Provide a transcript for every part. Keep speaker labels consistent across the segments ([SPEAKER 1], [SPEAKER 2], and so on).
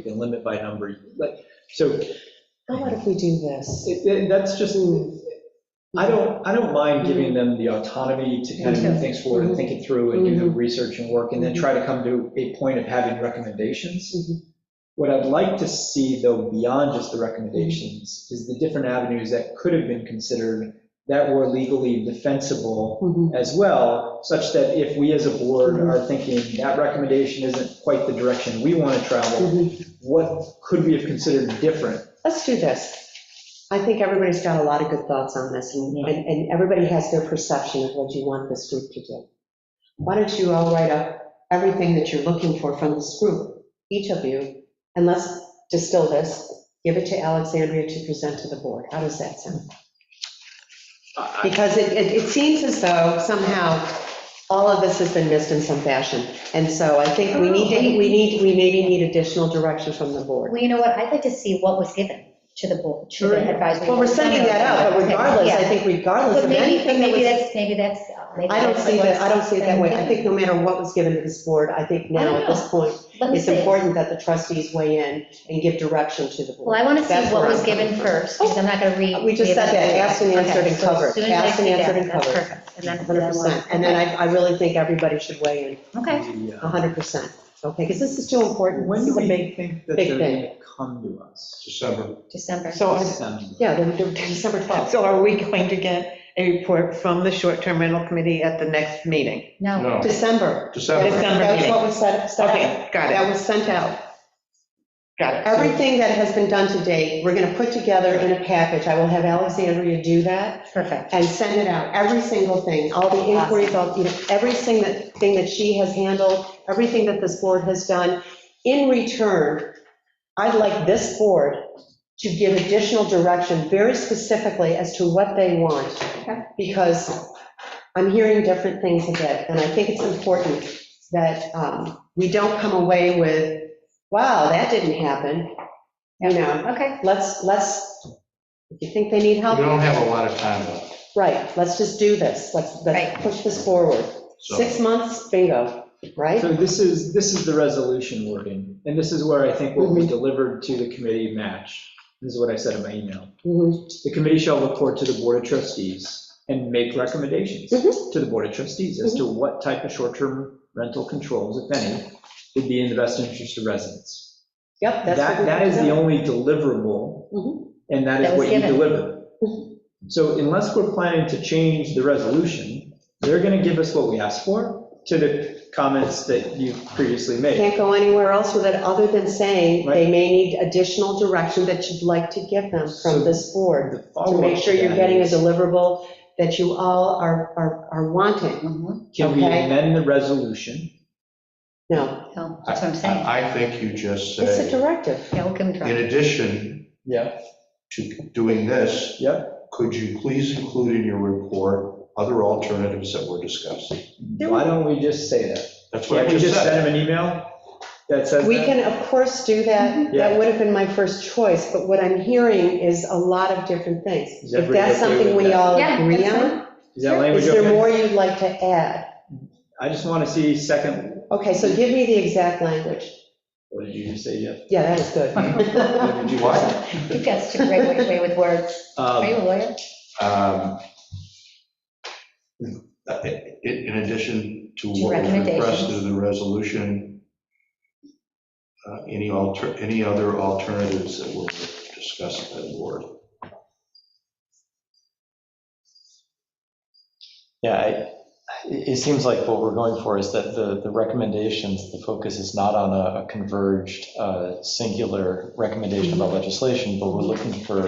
[SPEAKER 1] can limit by number, like, so
[SPEAKER 2] How about if we do this?
[SPEAKER 1] it- it- that's just, I don't, I don't mind giving them the autonomy to kind of move things forward and think it through and do the research and work, and then try to come to a point of having recommendations. What I'd like to see, though, beyond just the recommendations, is the different avenues that could have been considered that were legally defensible
[SPEAKER 2] Mhm.
[SPEAKER 1] as well, such that if we as a board are thinking that recommendation isn't quite the direction we want to
[SPEAKER 2] Mm-hmm.
[SPEAKER 1] travel, what could we have considered different?
[SPEAKER 2] Let's do this. I think everybody's got a lot of good thoughts on this, and, and and everybody has their perception of what you want this group to do. Why don't you all write up everything that you're looking for from this group, each of you, and let's distill this, give it to Alexandria to present to the board. How does that sound?
[SPEAKER 1] I-
[SPEAKER 2] Because it, it it seems as though somehow all of this has been missed in some fashion. And so I think we need to, we need, we maybe need additional direction from the board.
[SPEAKER 3] Well, you know what, I'd like to see what was given to the board, to the advisory.
[SPEAKER 2] Well, we're sending that out, but regardless, I think regardless
[SPEAKER 3] But
[SPEAKER 2] of
[SPEAKER 3] maybe, but
[SPEAKER 2] anything that
[SPEAKER 3] maybe
[SPEAKER 2] was,
[SPEAKER 3] that's, maybe that's. uh, maybe
[SPEAKER 2] I don't
[SPEAKER 3] that's
[SPEAKER 2] see that, I don't
[SPEAKER 3] what's
[SPEAKER 2] see it that way.
[SPEAKER 3] been
[SPEAKER 2] I think no matter what was given to this board, I think now at this point,
[SPEAKER 3] given. Let me
[SPEAKER 2] it's
[SPEAKER 3] see.
[SPEAKER 2] important that the trustees weigh in and give direction to the board.
[SPEAKER 3] Well, I want to see
[SPEAKER 2] That's
[SPEAKER 3] what
[SPEAKER 2] where
[SPEAKER 3] was
[SPEAKER 2] I'm
[SPEAKER 3] given
[SPEAKER 2] coming from.
[SPEAKER 3] first, because I'm not going to read.
[SPEAKER 2] We just said
[SPEAKER 3] read
[SPEAKER 2] that,
[SPEAKER 3] it.
[SPEAKER 2] asked and answered and
[SPEAKER 3] Okay, so as
[SPEAKER 2] covered.
[SPEAKER 3] soon as I
[SPEAKER 2] Asked and
[SPEAKER 3] see that,
[SPEAKER 2] answered and
[SPEAKER 3] that's
[SPEAKER 2] covered.
[SPEAKER 3] perfect. And then.
[SPEAKER 2] 100%. And then I, I really think everybody should weigh in,
[SPEAKER 3] Okay,
[SPEAKER 1] The, uh,
[SPEAKER 2] 100%. Okay, because this is too important.
[SPEAKER 1] When
[SPEAKER 2] This
[SPEAKER 1] do
[SPEAKER 2] Uh-huh. is a
[SPEAKER 1] we
[SPEAKER 2] big.
[SPEAKER 1] think that
[SPEAKER 2] big
[SPEAKER 1] they're
[SPEAKER 2] thing.
[SPEAKER 1] going to come to us?
[SPEAKER 4] December.
[SPEAKER 3] December.
[SPEAKER 5] So
[SPEAKER 2] uh,
[SPEAKER 5] I-
[SPEAKER 1] December.
[SPEAKER 2] Yeah, they're- they're December 12th.
[SPEAKER 5] So are we going to get a report from the short-term rental committee at the next meeting?
[SPEAKER 3] No,
[SPEAKER 4] No,
[SPEAKER 2] Uh, December.
[SPEAKER 4] December.
[SPEAKER 5] December
[SPEAKER 2] That's
[SPEAKER 5] meeting.
[SPEAKER 2] what was said, said.
[SPEAKER 5] Okay, got it.
[SPEAKER 2] That was sent out.
[SPEAKER 5] Got it.
[SPEAKER 2] Everything that has been done to date, we're going to put together in a package. I will have Alexandria do that
[SPEAKER 3] perfect.
[SPEAKER 2] and send it out, every single thing, all the inquiries, all, you know, every single thing that she has handled, everything that this board has done. In return, I'd like this board to give additional direction, very specifically as to what they want. Because I'm hearing different things a bit, and I think it's important that um, we don't come away with, wow, that didn't happen. You know,
[SPEAKER 3] Okay,
[SPEAKER 2] let's, let's, if you think they need
[SPEAKER 4] We
[SPEAKER 2] help,
[SPEAKER 4] don't have a lot of time left,
[SPEAKER 2] Right, let's just do this, let's,
[SPEAKER 3] Right.
[SPEAKER 2] let's push this forward. Six
[SPEAKER 4] so.
[SPEAKER 2] months, bingo, right?
[SPEAKER 1] So this is, this is the resolution wording, and this is where I think what
[SPEAKER 2] Mm-hmm.
[SPEAKER 1] we delivered to the committee match. This is what I said in my email.
[SPEAKER 2] Mhm.
[SPEAKER 1] The committee shall report to the Board of Trustees and make recommendations
[SPEAKER 2] Mm-hmm.
[SPEAKER 1] to the Board of Trustees as to what type of short-term rental controls, if any, would be in the best interest of residents.
[SPEAKER 2] Yep, that's. what
[SPEAKER 1] That,
[SPEAKER 2] we
[SPEAKER 1] that is
[SPEAKER 2] did.
[SPEAKER 1] the only deliverable,
[SPEAKER 2] Mhm.
[SPEAKER 1] and that is
[SPEAKER 3] That was
[SPEAKER 1] what you
[SPEAKER 3] given.
[SPEAKER 1] deliver.
[SPEAKER 2] Mm-hmm.
[SPEAKER 1] So unless we're planning to change the resolution, they're going to give us what we asked for to the comments that you've previously made.
[SPEAKER 2] Can't go anywhere else with it, other than saying they
[SPEAKER 1] Right.
[SPEAKER 2] may need additional direction that you'd like to give them
[SPEAKER 1] So
[SPEAKER 2] from this board.
[SPEAKER 1] The
[SPEAKER 2] To
[SPEAKER 1] follow-up
[SPEAKER 2] make sure you're
[SPEAKER 1] that
[SPEAKER 2] getting a
[SPEAKER 1] is,
[SPEAKER 2] deliverable that you all are, are, are wanting.
[SPEAKER 3] Mm-hmm.
[SPEAKER 1] Can we
[SPEAKER 2] okay.
[SPEAKER 1] amend the resolution?
[SPEAKER 2] No,
[SPEAKER 3] no, that's what I'm saying.
[SPEAKER 4] I I think you just
[SPEAKER 2] it's a
[SPEAKER 4] said,
[SPEAKER 2] directive.
[SPEAKER 3] Yeah, we'll give them.
[SPEAKER 4] in
[SPEAKER 3] direction.
[SPEAKER 4] addition
[SPEAKER 1] Yeah.
[SPEAKER 4] to doing this,
[SPEAKER 1] Yep.
[SPEAKER 4] could you please include in your report other alternatives that were discussed?
[SPEAKER 1] Why don't we just say that?
[SPEAKER 4] That's what
[SPEAKER 1] Can't
[SPEAKER 4] I
[SPEAKER 1] we
[SPEAKER 4] just
[SPEAKER 1] just
[SPEAKER 4] said.
[SPEAKER 1] send him an email that says
[SPEAKER 2] We
[SPEAKER 1] that?
[SPEAKER 2] can, of course, do that,
[SPEAKER 1] Yeah.
[SPEAKER 2] that would have been my first choice, but what I'm hearing is a lot of different things.
[SPEAKER 1] Is
[SPEAKER 2] If
[SPEAKER 1] everybody
[SPEAKER 2] that's
[SPEAKER 1] okay
[SPEAKER 2] something
[SPEAKER 1] with
[SPEAKER 2] we
[SPEAKER 1] that?
[SPEAKER 2] all
[SPEAKER 3] Yeah,
[SPEAKER 2] agree
[SPEAKER 3] that's
[SPEAKER 2] on,
[SPEAKER 3] fine.
[SPEAKER 1] Is that language
[SPEAKER 2] Is there
[SPEAKER 1] okay?
[SPEAKER 2] more you'd like to add?
[SPEAKER 1] I just want to see second,
[SPEAKER 2] Okay, so give me the exact language.
[SPEAKER 1] what did you just say, Jeff?
[SPEAKER 2] Yeah, that was good.
[SPEAKER 1] What did you
[SPEAKER 4] What?
[SPEAKER 1] say?
[SPEAKER 3] You've got such a great way with words. Are you
[SPEAKER 1] Um,
[SPEAKER 3] a lawyer?
[SPEAKER 4] Um, In in addition to
[SPEAKER 3] To
[SPEAKER 4] what was requested
[SPEAKER 3] recommendations.
[SPEAKER 4] in the resolution, uh, any alter, any other alternatives that were discussed by the board?
[SPEAKER 6] Yeah, I- it it seems like what we're going for is that the the recommendations, the focus is not on a a converged uh, singular recommendation about
[SPEAKER 2] Mm-hmm.
[SPEAKER 6] legislation, but we're looking for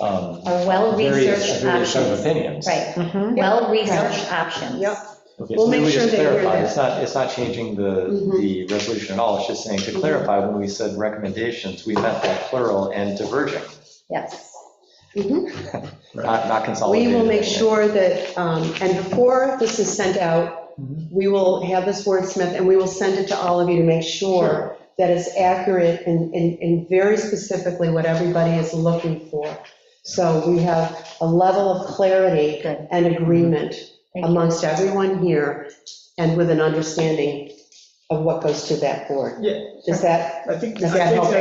[SPEAKER 6] um,
[SPEAKER 3] Or
[SPEAKER 6] various
[SPEAKER 3] well-researched
[SPEAKER 6] various sort of
[SPEAKER 3] options.
[SPEAKER 6] opinions.
[SPEAKER 3] Right,
[SPEAKER 5] Mhm.
[SPEAKER 3] well-researched options.
[SPEAKER 2] Yep.
[SPEAKER 6] Okay,
[SPEAKER 2] We'll
[SPEAKER 6] so maybe
[SPEAKER 2] make
[SPEAKER 6] we
[SPEAKER 2] sure
[SPEAKER 6] just
[SPEAKER 2] that we're
[SPEAKER 6] clarify,
[SPEAKER 2] there.
[SPEAKER 6] it's not, it's not changing the,
[SPEAKER 2] Mhm.
[SPEAKER 6] the resolution at all, it's just saying to
[SPEAKER 2] Mhm.
[SPEAKER 6] clarify, when we said recommendations, we meant that plural and diverging,
[SPEAKER 3] Yes.
[SPEAKER 2] Mhm.
[SPEAKER 6] not, not consolidated.
[SPEAKER 2] We will make sure that, um, and before this is sent out,
[SPEAKER 1] Mhm.
[SPEAKER 3] Mm-hmm.
[SPEAKER 2] we will have this wordsmith, and we will send it to all of you to make sure that it's accurate and, and and very specifically what everybody is looking for. So we have a level of clarity
[SPEAKER 3] Good.
[SPEAKER 2] and agreement
[SPEAKER 3] Thank you.
[SPEAKER 2] amongst everyone here, and with an understanding of what goes to that board.
[SPEAKER 1] Yeah.
[SPEAKER 2] Does that
[SPEAKER 1] I think,
[SPEAKER 2] Does
[SPEAKER 1] I
[SPEAKER 2] that
[SPEAKER 1] think
[SPEAKER 2] help?
[SPEAKER 1] that